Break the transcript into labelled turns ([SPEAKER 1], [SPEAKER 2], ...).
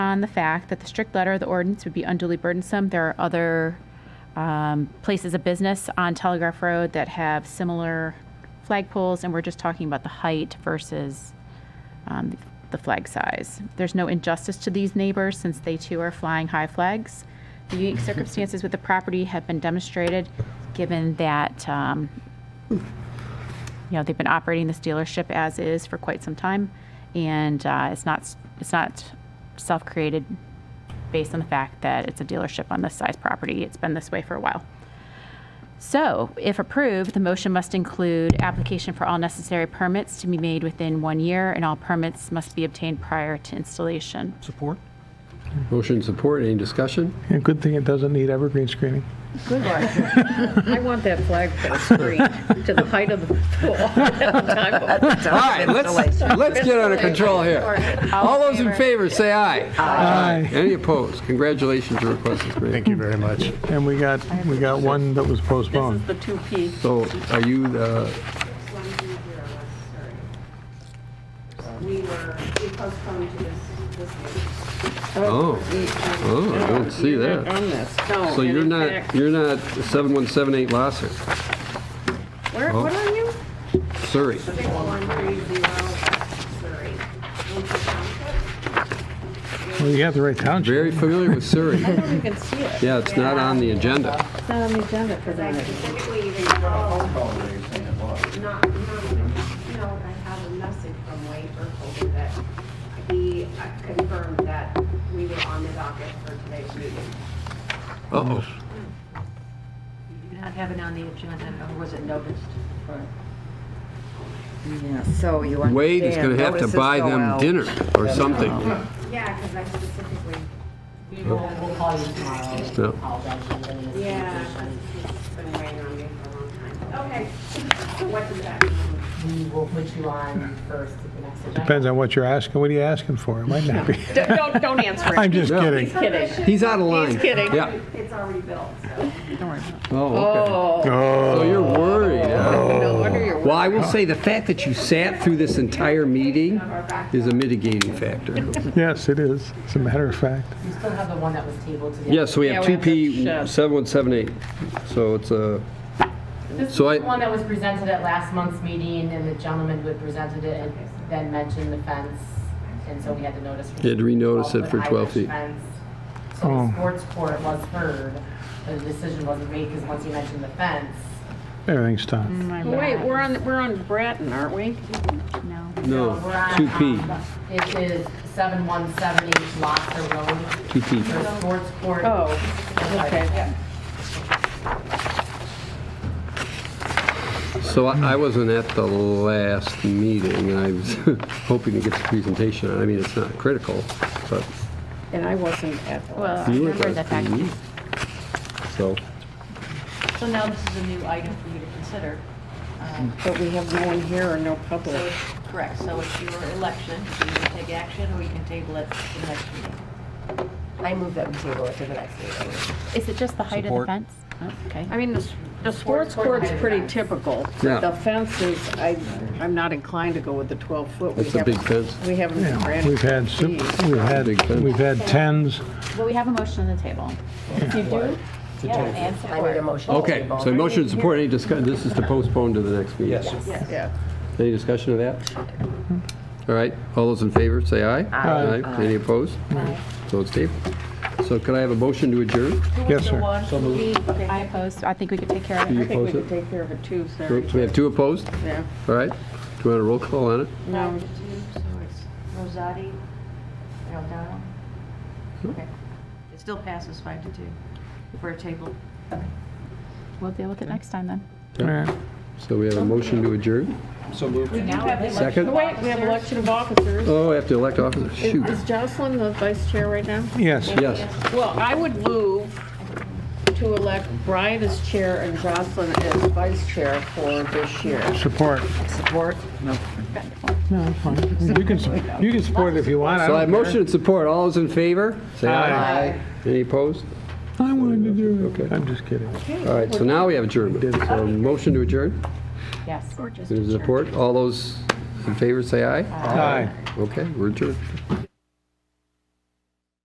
[SPEAKER 1] on the fact that the strict letter of the ordinance would be unduly burdensome. There are other um, places of business on Telegraph Road that have similar flagpoles, and we're just talking about the height versus um, the flag size. There's no injustice to these neighbors since they too are flying high flags. The unique circumstances with the property have been demonstrated, given that, um, you know, they've been operating this dealership as is for quite some time, and uh, it's not, it's not self-created based on the fact that it's a dealership on this size property. It's been this way for a while. So, if approved, the motion must include application for all necessary permits to be made within one year, and all permits must be obtained prior to installation.
[SPEAKER 2] Support?
[SPEAKER 3] Motion support, any discussion?
[SPEAKER 4] Yeah, good thing it doesn't need evergreen screening.
[SPEAKER 5] Good luck. I want that flagpole screened to the height of the pole.
[SPEAKER 3] All right, let's, let's get under control here. All those in favor, say aye.
[SPEAKER 4] Aye.
[SPEAKER 3] Any opposed? Congratulations, your request is granted.
[SPEAKER 6] Thank you very much.
[SPEAKER 4] And we got, we got one that was
[SPEAKER 5] This
[SPEAKER 4] postponed.
[SPEAKER 5] is the two P.
[SPEAKER 3] So are you, uh,
[SPEAKER 7] we were, we postponed to this, this meeting.
[SPEAKER 3] oh, oh, I don't see
[SPEAKER 5] You're not
[SPEAKER 3] that.
[SPEAKER 5] On this, no.
[SPEAKER 3] So
[SPEAKER 5] and
[SPEAKER 3] you're
[SPEAKER 5] in
[SPEAKER 3] not,
[SPEAKER 5] fact-
[SPEAKER 3] you're not 7178 Lasser,
[SPEAKER 5] Where, what are you?
[SPEAKER 3] Surrey.
[SPEAKER 7] Six one three zero, Surrey. Winter Township.
[SPEAKER 4] Well, you have the right township.
[SPEAKER 3] Very familiar with Surrey.
[SPEAKER 5] I don't even see it.
[SPEAKER 3] Yeah, it's not on the agenda.
[SPEAKER 5] It's not on the agenda for
[SPEAKER 7] I
[SPEAKER 5] that.
[SPEAKER 7] specifically even called. Not, not, you know, I have a message from Wade Burkholder that he uh, confirmed that we were on the docket for today's meeting.
[SPEAKER 3] Uh-oh.
[SPEAKER 8] Not have it on the agenda, or was it noticed?
[SPEAKER 9] Yeah, so you understand.
[SPEAKER 3] Wade is going to have to
[SPEAKER 9] notices
[SPEAKER 3] buy
[SPEAKER 9] go
[SPEAKER 3] them
[SPEAKER 9] out.
[SPEAKER 3] dinner or something.
[SPEAKER 7] Yeah, because I specifically,
[SPEAKER 8] We'll call you tomorrow.
[SPEAKER 3] No.
[SPEAKER 7] yeah, 'cause it's been weighing on me for a long time. Okay, so what does that mean?
[SPEAKER 8] We will put you on first at the next agenda.
[SPEAKER 4] Depends on what you're asking. What are you asking for? It might not be.
[SPEAKER 5] Don't, don't answer it.
[SPEAKER 4] I'm just
[SPEAKER 3] Yeah.
[SPEAKER 4] kidding.
[SPEAKER 5] Kidding.
[SPEAKER 3] He's out of line.
[SPEAKER 5] kidding.
[SPEAKER 3] Yeah.
[SPEAKER 7] It's already built, so.
[SPEAKER 3] Oh, okay. So
[SPEAKER 4] Oh,
[SPEAKER 3] you're worried, huh?
[SPEAKER 5] No wonder you're.
[SPEAKER 3] Well, I will say the fact that you sat through this entire meeting is a mitigating factor.
[SPEAKER 4] yes, it is, as a matter of fact.
[SPEAKER 8] You still have the one that was tabled today.
[SPEAKER 3] Yes, we have
[SPEAKER 5] Yeah, we
[SPEAKER 3] 2P7178. So it's a,
[SPEAKER 8] This is the
[SPEAKER 3] So I-
[SPEAKER 8] one that was presented at last month's meeting, and the gentleman who had presented it and then mentioned the fence, and so we had to notice. for
[SPEAKER 3] You had to renotice it for
[SPEAKER 8] 12-foot
[SPEAKER 3] 12
[SPEAKER 8] Irish
[SPEAKER 3] feet.
[SPEAKER 8] fence. So
[SPEAKER 4] Oh.
[SPEAKER 8] the sports court was heard, but the decision wasn't made, because once you mentioned the fence,
[SPEAKER 4] Everything's
[SPEAKER 5] Mm,
[SPEAKER 4] done.
[SPEAKER 5] Wait, we're on, we're on Bratton, aren't we?
[SPEAKER 3] no,
[SPEAKER 8] we're on,
[SPEAKER 3] 2P,
[SPEAKER 8] um, It is 7178 Loster Road.
[SPEAKER 3] 2P.
[SPEAKER 8] The sports court.
[SPEAKER 5] Oh, okay.
[SPEAKER 3] So I I wasn't at the last meeting, and I was hoping to get the presentation. on. I mean, it's not critical, but
[SPEAKER 5] And I wasn't at the
[SPEAKER 1] Well,
[SPEAKER 5] last.
[SPEAKER 1] I
[SPEAKER 3] You were
[SPEAKER 1] remember
[SPEAKER 3] at
[SPEAKER 1] that
[SPEAKER 3] that
[SPEAKER 1] back.
[SPEAKER 3] meeting. so.
[SPEAKER 10] So now this is a new item for you to consider. Um,
[SPEAKER 5] But we have no one here or no
[SPEAKER 10] So,
[SPEAKER 5] public.
[SPEAKER 10] it's- correct, so it's your election, you can take action or we can table it for the next meeting.
[SPEAKER 8] I move that we table it to the next meeting.
[SPEAKER 1] Is it just the height of the
[SPEAKER 2] Support.
[SPEAKER 1] fence? Oh, Okay.
[SPEAKER 5] I mean, the s- the sports court's pretty typical.
[SPEAKER 3] Yeah.
[SPEAKER 5] The fences, I, I'm not inclined to go with the 12-foot.
[SPEAKER 3] It's a big fence.
[SPEAKER 5] We haven't
[SPEAKER 4] Yeah,
[SPEAKER 5] granted.
[SPEAKER 4] We've had, sup-
[SPEAKER 5] these.
[SPEAKER 4] we've had,
[SPEAKER 3] Big fence.
[SPEAKER 4] we've had tens.
[SPEAKER 1] Well, we have a motion on the table.
[SPEAKER 10] Yeah, and support.
[SPEAKER 8] I made a motion. to
[SPEAKER 3] Okay,
[SPEAKER 8] table.
[SPEAKER 3] so motion to support, any discussion, this is to postpone to the next meeting? Yes.
[SPEAKER 5] Yeah.
[SPEAKER 3] Any discussion of that? All right, all those in favor, say aye.
[SPEAKER 4] Aye.
[SPEAKER 3] Any opposed? So it's tabled. So could I have a motion to adjourn?
[SPEAKER 4] Yes, sir.
[SPEAKER 1] I oppose, I think we could take care of
[SPEAKER 3] Do
[SPEAKER 1] it.
[SPEAKER 3] you
[SPEAKER 5] I think we
[SPEAKER 3] oppose
[SPEAKER 5] could
[SPEAKER 3] it?
[SPEAKER 5] take care of it too,
[SPEAKER 3] So
[SPEAKER 5] sorry.
[SPEAKER 3] we have two opposed?
[SPEAKER 5] Yeah.
[SPEAKER 3] All right, do you want a roll call on it?
[SPEAKER 5] No,
[SPEAKER 10] So it's Rosati, Aldana. Okay. It still passes five to two for a table.
[SPEAKER 1] We'll deal with it next time, then.
[SPEAKER 4] All right.
[SPEAKER 3] So we have a motion to adjourn?
[SPEAKER 2] So moved.
[SPEAKER 3] Second?
[SPEAKER 5] wait, we have election of officers.
[SPEAKER 3] Oh, I have to elect officers, shoot.
[SPEAKER 5] Is Jocelyn the vice chair right now?
[SPEAKER 4] Yes.
[SPEAKER 3] Yes,
[SPEAKER 5] Well, I would move to elect Brian as chair and Jocelyn as vice chair for this year.
[SPEAKER 4] Support.
[SPEAKER 9] Support? No.
[SPEAKER 4] No, it's fine. You can, sup- you can support it if you want.
[SPEAKER 3] so I
[SPEAKER 4] don't
[SPEAKER 3] have
[SPEAKER 4] care.
[SPEAKER 3] motion and support, all those in favor, say
[SPEAKER 4] Aye.
[SPEAKER 3] aye. Any opposed?
[SPEAKER 4] I wanted to do it.
[SPEAKER 3] Okay.
[SPEAKER 4] I'm just kidding.
[SPEAKER 3] All right, so now we have adjournment, so motion to adjourn,
[SPEAKER 1] Yes.
[SPEAKER 3] Is there support, all those in favor, say aye.
[SPEAKER 4] Aye.
[SPEAKER 3] Okay, we're adjourned.